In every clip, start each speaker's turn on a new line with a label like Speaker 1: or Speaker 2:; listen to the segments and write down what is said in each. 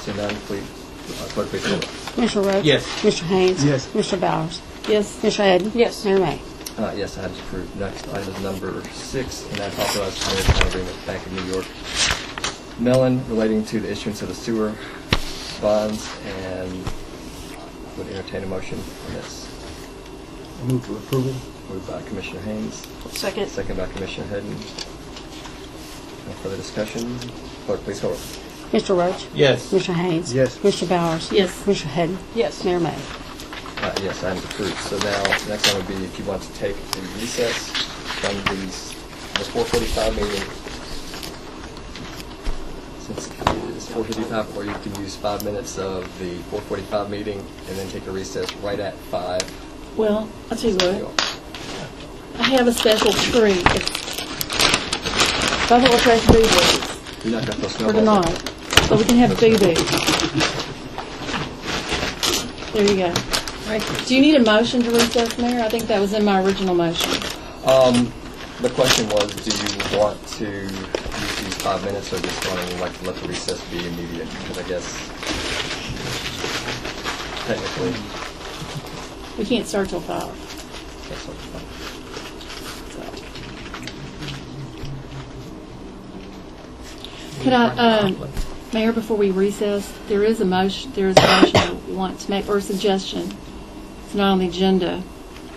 Speaker 1: Send item, please. Uh, Clerk, please call it.
Speaker 2: Mr. Rhodes?
Speaker 1: Yes.
Speaker 2: Mr. Haynes?
Speaker 3: Yes.
Speaker 2: Mr. Bowers?
Speaker 4: Yes.
Speaker 2: Mr. Hadden?
Speaker 4: Yes.
Speaker 2: Mayor May?
Speaker 1: Uh, Yes, item is approved. Next item is number six, and that's authorized to enter into an agreement with Bank of New York Mellon relating to the issuance of the sewer bonds, and would entertain a motion on this.
Speaker 3: Move for approval.
Speaker 1: Moved by Commissioner Haynes,
Speaker 4: Second.
Speaker 1: second by Commissioner Hadden. No further discussion? Clerk, please call it.
Speaker 2: Mr. Roach?
Speaker 3: Yes.
Speaker 2: Mr. Haynes?
Speaker 3: Yes.
Speaker 2: Mr. Bowers?
Speaker 4: Yes.
Speaker 2: Mr. Hadden?
Speaker 4: Yes.
Speaker 2: Mayor May?
Speaker 1: Uh, Yes, item's approved. So now, next item would be if you want to take a recess from these- the 4:45 meeting. Since it's 4:55, or you can use five minutes of the 4:45 meeting and then take a recess right at five.
Speaker 4: Well, I'll tell you what, I have a special treat. If I want to try to do this
Speaker 1: You're not going to throw
Speaker 4: for
Speaker 1: snowballs. at me.
Speaker 4: tonight, so we can have boo boo. There you go. Do you need a motion to recess, Mayor? I think that was in my original motion.
Speaker 1: Um, The question was, do you want to use these five minutes or just want to like let the recess be immediate? Because I guess technically,
Speaker 4: We can't start till five,
Speaker 1: that's what I'm
Speaker 4: so. Could I, um, Mayor, before we recess, there is a motion, there is a motion I want to make, or a suggestion. It's not on the agenda.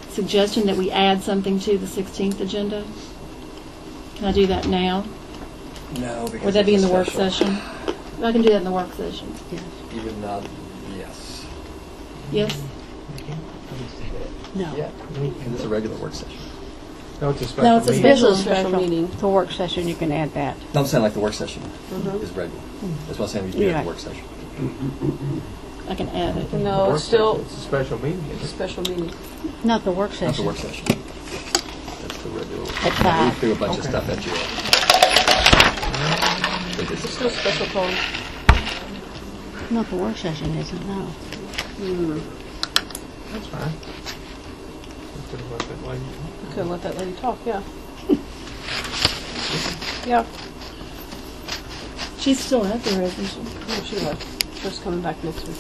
Speaker 4: Suggestion that we add something to the 16th agenda? Can I do that now?
Speaker 1: No,
Speaker 4: Would that be in the work session? I can do that in the work session.
Speaker 1: Even not, yes.
Speaker 4: Yes?
Speaker 2: No.
Speaker 1: Yeah, it's a regular work session.
Speaker 3: No, it's a special.
Speaker 4: No, it's a
Speaker 3: meeting.
Speaker 4: special
Speaker 2: Special.
Speaker 4: special meeting.
Speaker 2: The work session, you can add that.
Speaker 1: No, I'm saying like the work session is regular. That's what I'm saying, we do have
Speaker 2: Yeah.
Speaker 1: the work session.
Speaker 4: I can add it.
Speaker 5: No,
Speaker 3: Work
Speaker 5: it's still
Speaker 3: session. It's a special meeting. isn't it?
Speaker 5: special meeting.
Speaker 2: Not the work
Speaker 1: Not the
Speaker 2: session.
Speaker 1: work session. That's the regular.
Speaker 2: At five.
Speaker 1: We threw a bunch of stuff at you. But it's-
Speaker 5: Still special call.
Speaker 2: Not the work session, is it? No.
Speaker 3: That's fine. We could have left it like-
Speaker 5: You could let that lady talk, yeah. Yeah,
Speaker 4: She's still out there, isn't she?
Speaker 5: no, she left. She's coming back next week.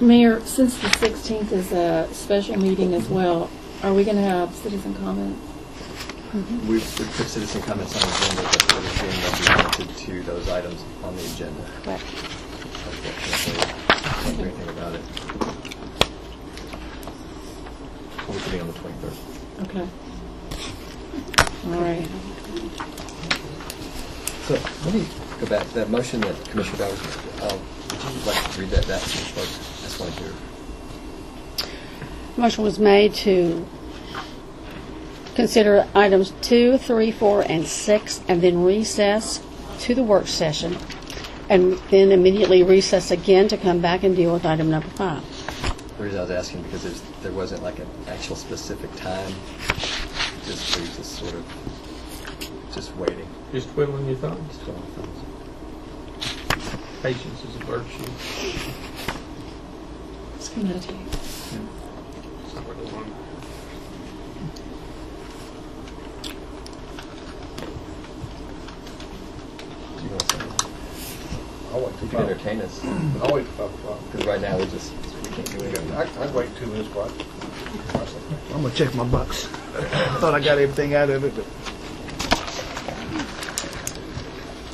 Speaker 4: Mayor, since the 16th is a special meeting as well, are we going to have citizen comment?
Speaker 1: We we put citizen comments on the agenda, but it was being limited to those items on the agenda.
Speaker 4: Correct.
Speaker 1: Unfortunately, can't do anything about it. We could be on the 23rd.
Speaker 4: Okay. All right.
Speaker 1: So let me go back, that motion that Commissioner Bowers, made, um, would you like to read that back to the clerk? That's why you're,
Speaker 2: Motion was made to consider items two, three, four, and six, and then recess to the work session, and then immediately recess again to come back and deal with item number five.
Speaker 1: the reason I was asking, because there's, there wasn't like an actual specific time, just, we just sort of, just waiting.
Speaker 3: Just twiddling your thumbs.
Speaker 1: Just going through.
Speaker 3: Patience is a virtue.
Speaker 4: Just gonna meditate.
Speaker 3: It's not really one.
Speaker 1: Do you want to say?
Speaker 6: I'll wait till
Speaker 1: You can
Speaker 6: five.
Speaker 1: entertain us,
Speaker 6: I'll wait till five o'clock.
Speaker 1: because right now we just, we can't do anything.
Speaker 6: I- I'd wait two minutes, but
Speaker 3: I'm gonna check my box.
Speaker 6: I thought I got everything out of it, but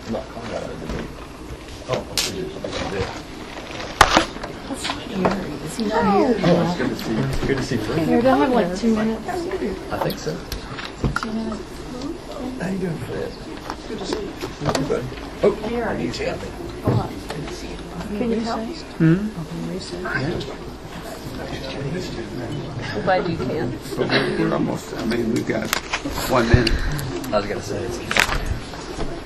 Speaker 1: I'm not calling out of the debate. Oh, we did, we did. Oh, it's good to see, it's good to see Frank.
Speaker 4: Mayor, do I have like two minutes?
Speaker 1: I think so. How you doing, Fred? Good to see you. buddy. Oh, I need you.
Speaker 5: I'm glad you can.
Speaker 7: So we're we're almost, I mean, we've got one minute.
Speaker 1: I was gonna say. it's-